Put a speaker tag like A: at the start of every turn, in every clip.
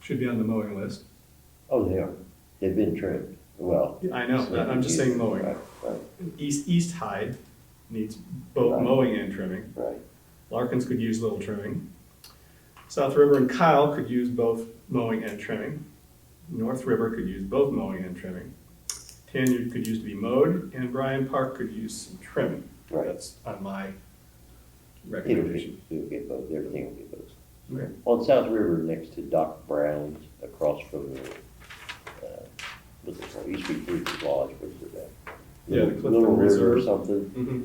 A: should be on the mowing list.
B: Oh, they are. They've been trimmed. Well.
A: I know, I- I'm just saying mowing.
B: Right, right,
A: East, East Hyde needs both
B: Right.
A: mowing and trimming.
B: right.
A: Larkins could use little trimming. South River and Kyle could use both mowing and trimming. North River could use both mowing and trimming. Tanyard could use to be mowed, and Bryan Park could use some trimming.
B: Right.
A: That's on my
B: It'll get,
A: recommendation.
B: it'll get both, everything will get both.
A: Okay.
B: On South River, next to Doc Brown's, across from the, uh, what's it called, East Street Bridge Lodge, what's it called?
A: Yeah, the
B: Little-
A: Clifton
B: Little River or
A: Reserve.
B: something.
A: Mhm.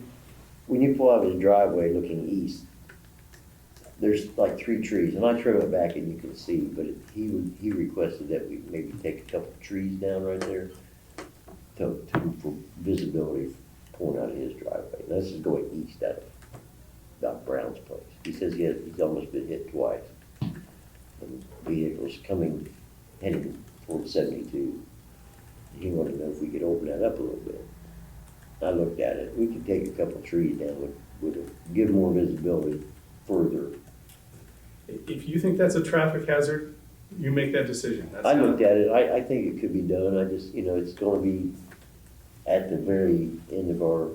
B: When you pull out of the driveway looking east, there's like three trees, and I trim it back and you can see, but it- he would, he requested that we maybe take a couple of trees down right there to, to, for visibility pulling out of his driveway. And This is going east out of Doc Brown's place. He says he has, he's almost been hit twice. And Vehicles coming, heading toward seventy-two. He wanted to know if we could open that up a little bit. I looked at it, we could take a couple of trees down, would, would give more visibility further.
A: If you think that's a traffic hazard, you make that decision. That's
B: I
A: not-
B: looked at it, I, I think it could be done, I just, you know, it's gonna be at the very end of our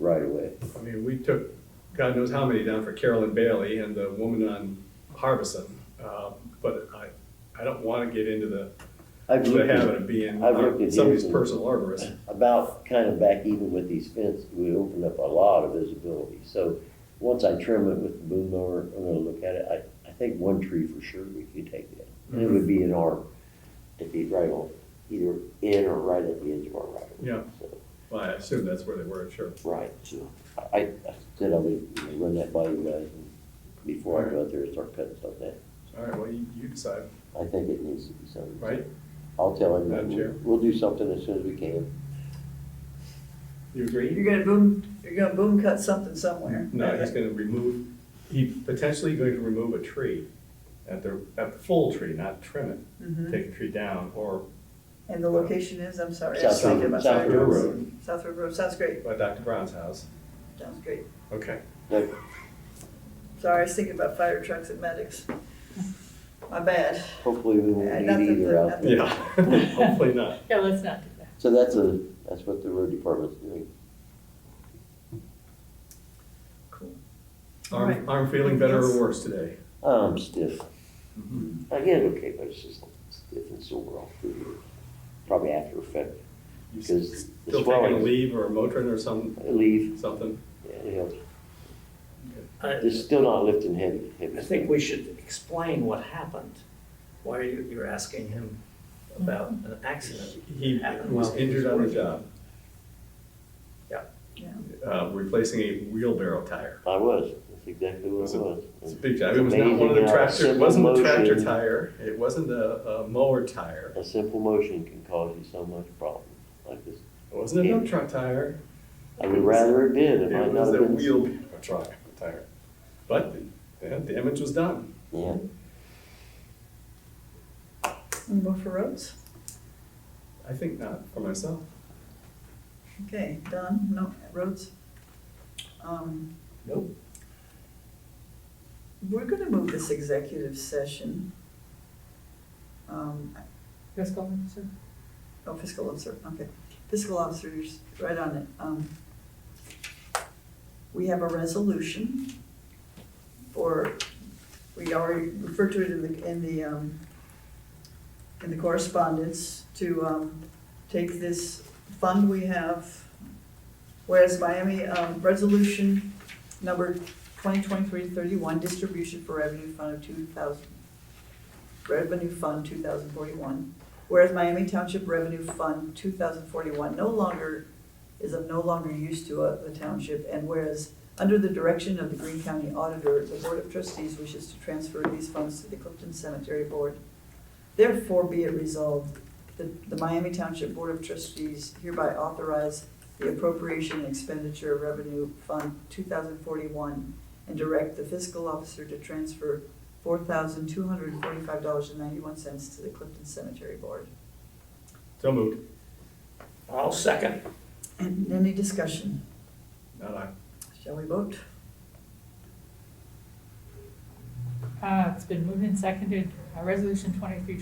B: right of way.
A: I mean, we took God knows how many down for Carolyn Bailey and the woman on Harbison. Uh, But I, I don't want to get into the,
B: I've
A: the
B: looked
A: habit
B: at
A: of being
B: I've looked
A: uh,
B: at
A: somebody's
B: his-
A: personal arborist.
B: about kind of back even with these fences, we opened up a lot of visibility. So, once I trim it with the boom mower, I'm gonna look at it, I, I think one tree for sure we could take down. And it would be in our, it'd be right on, either in or right at the edge of our right of way.
A: Yeah.
B: So-
A: Well, I assume that's where they were, sure.
B: Right, so I, I said I would you know, run that by you guys and before I go out there and start cutting stuff down.
A: All right, well, you, you decide,
B: I think it needs to be something.
A: right?
B: I'll tell him, that
A: Madam Chair?
B: we'll we'll do something as soon as we can.
A: You agree?
C: You're gonna boom, you're gonna boom cut something somewhere.
A: No, he's going to remove, he potentially going to remove a tree at the, at the full tree, not trim it.
C: Mhm.
A: Take a tree down or
C: And the location is, I'm sorry. I was
B: South
C: thinking
B: River,
C: about
B: South
C: South
B: River
C: River.
B: Road.
C: South River Road, sounds great,
A: by Dr. Brown's house.
C: sounds great.
A: Okay.
B: Like,
C: Sorry, I was thinking about fire trucks and medics. My bad.
B: Hopefully we
C: Yeah,
B: won't
C: nothing
B: need either
C: to-
B: out there.
A: Yeah, hopefully not.
D: Yeah, let's not do that.
B: So that's a, that's what the road department's doing.
C: Cool. All
A: I'm,
C: right.
A: I'm feeling better or worse today.
B: I'm stiff. I get it okay, but it's just stiff and sore all through here. Probably after effect,
A: You
B: because the
A: Still taking a
B: swelling.
A: leave or a Motrin or some,
B: Leave,
A: something?
B: yeah, it helps.
E: I,
B: It's still not lifting heavy. heavy
E: I
B: stuff.
E: think we should explain what happened. Why you, you're asking him about an accident?
A: He
E: happened
A: was
E: while he
A: injured on the
E: working.
A: job.
E: Yeah.
C: Yeah.
A: Uh, replacing a wheelbarrow tire.
B: I was, that's exactly what
A: Was
B: it
A: it-
B: was.
A: It's a big job. It was not
B: Amazing
A: one of the
B: how
A: tractor, it
B: simple
A: wasn't a tractor
B: motion-
A: tire, it wasn't a, a mower tire,
B: A simple motion can cause you so much problem like this.
A: it wasn't a dump truck tire.
B: I would rather it did,
A: It
B: it might not
A: was
B: have
A: a
B: been.
A: wheelbarrow tri- tire. But the damage was done.
B: Yeah,
C: Any more for roads?
A: I think not for myself.
C: Okay, done, no, roads? Um,
E: Nope.
C: we're gonna move this executive session. Um,
D: Let's go, sir.
C: Oh, fiscal officer, okay. Fiscal officers, right on it. Um, We have a resolution for, we already referred to it in the, in the, um, in the correspondence to, um, take this fund we have, whereas Miami, um, resolution number 2023-31, distribution for revenue fund of 2,000, revenue fund 2041, Whereas Miami Township Revenue Fund two thousand forty-one no longer, is of no longer use to uh, the township, and whereas under the direction of the Greene County Auditor, the Board of Trustees wishes to transfer these funds to the Clifton Cemetery Board. Therefore be it resolved that the Miami Township Board of Trustees hereby authorize the appropriation and expenditure of Revenue Fund two thousand forty-one and direct the fiscal officer to transfer four thousand two hundred and forty-five dollars and ninety-one cents to the Clifton Cemetery Board.
A: So moved,
E: I'll second.
C: And any discussion?
A: not I.
C: Shall we vote?
D: Uh, it's been moved and seconded, uh, resolution twenty-three